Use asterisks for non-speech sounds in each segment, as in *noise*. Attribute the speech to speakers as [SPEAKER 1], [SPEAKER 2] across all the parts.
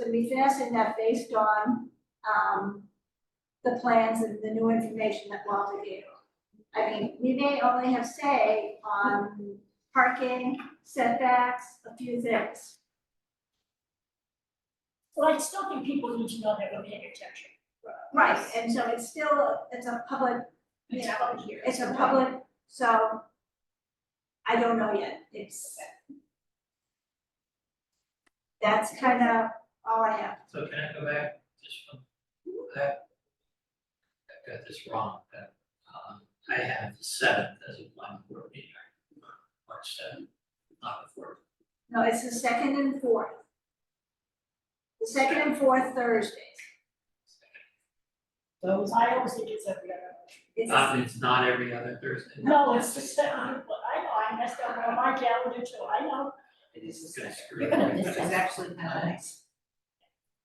[SPEAKER 1] to be finessing that based on, um, the plans and the new information that Walter gave. I mean, we may only have say on parking, setbacks, a few things.
[SPEAKER 2] Well, I still think people need to know that we're paying attention.
[SPEAKER 1] Right, and so it's still, it's a public,
[SPEAKER 2] It's
[SPEAKER 1] Yeah.
[SPEAKER 2] out here.
[SPEAKER 1] it's a public, so I don't know yet, it's. That's kind of all I have.
[SPEAKER 3] So can I go back just from that? I got this wrong, that, um, I have the seventh as a planning board meeting, March seventh, not the fourth.
[SPEAKER 1] No, it's the second and fourth. The second and fourth Thursdays.
[SPEAKER 2] Those, I always think it's every other.
[SPEAKER 1] It's,
[SPEAKER 3] Um, it's not every other Thursday.
[SPEAKER 2] No, it's the second, but I know, I messed up on my calendar too, I know.
[SPEAKER 4] It is the
[SPEAKER 3] It's gonna
[SPEAKER 4] second.
[SPEAKER 3] screw
[SPEAKER 4] You're gonna *laughs*
[SPEAKER 3] everything
[SPEAKER 4] miss it.
[SPEAKER 3] up.
[SPEAKER 4] It's actually kind of nice.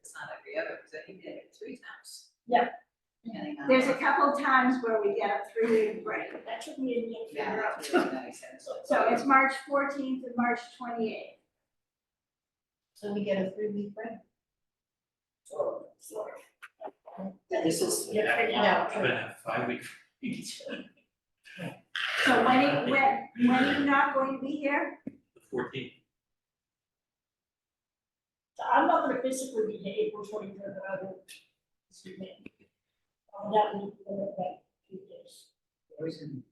[SPEAKER 4] It's not every other, because I think they did it three times.
[SPEAKER 2] Yeah.
[SPEAKER 4] Depending on.
[SPEAKER 1] there's a couple times where we get a three-week break.
[SPEAKER 2] That should be in the
[SPEAKER 4] Yeah,
[SPEAKER 2] figure out.
[SPEAKER 4] that's really nice.
[SPEAKER 1] So it's March fourteenth and March twenty-eighth.
[SPEAKER 5] So we get a three week break. This is,
[SPEAKER 3] We're gonna have-
[SPEAKER 2] figuring out.
[SPEAKER 3] We're gonna have five weeks.
[SPEAKER 1] So when, are- when, when are you not going to be here?
[SPEAKER 3] The fourteenth,
[SPEAKER 2] So I'm not gonna physically be here April twenty third, but I will. On that week, uh, that few days,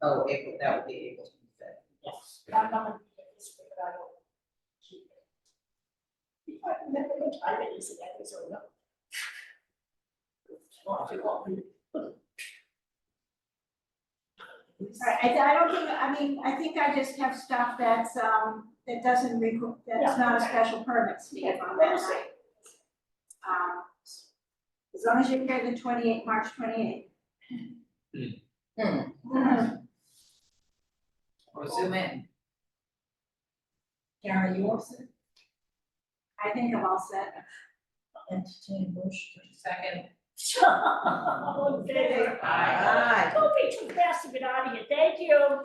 [SPEAKER 4] Oh, April, that would be April twenty-fifth.
[SPEAKER 2] yes, I'm not gonna be here this week, but I will. keep it. If I remember what time it is, that is or not. Well, if you want me
[SPEAKER 1] All right, I, I don't think, I mean, I think I just have stuff that's, um, that doesn't requ that's not a special permit, Steve, on that night.
[SPEAKER 2] *laughs*
[SPEAKER 1] Um, as long as you're here the twenty-eighth, March twenty-eighth.
[SPEAKER 4] Or zoom in. Karen, are you also
[SPEAKER 1] I think I'm all set.
[SPEAKER 5] entertain motion.
[SPEAKER 4] second?
[SPEAKER 2] to. All in favor?
[SPEAKER 3] Aye.
[SPEAKER 2] Don't be too fast to get out of here, thank you.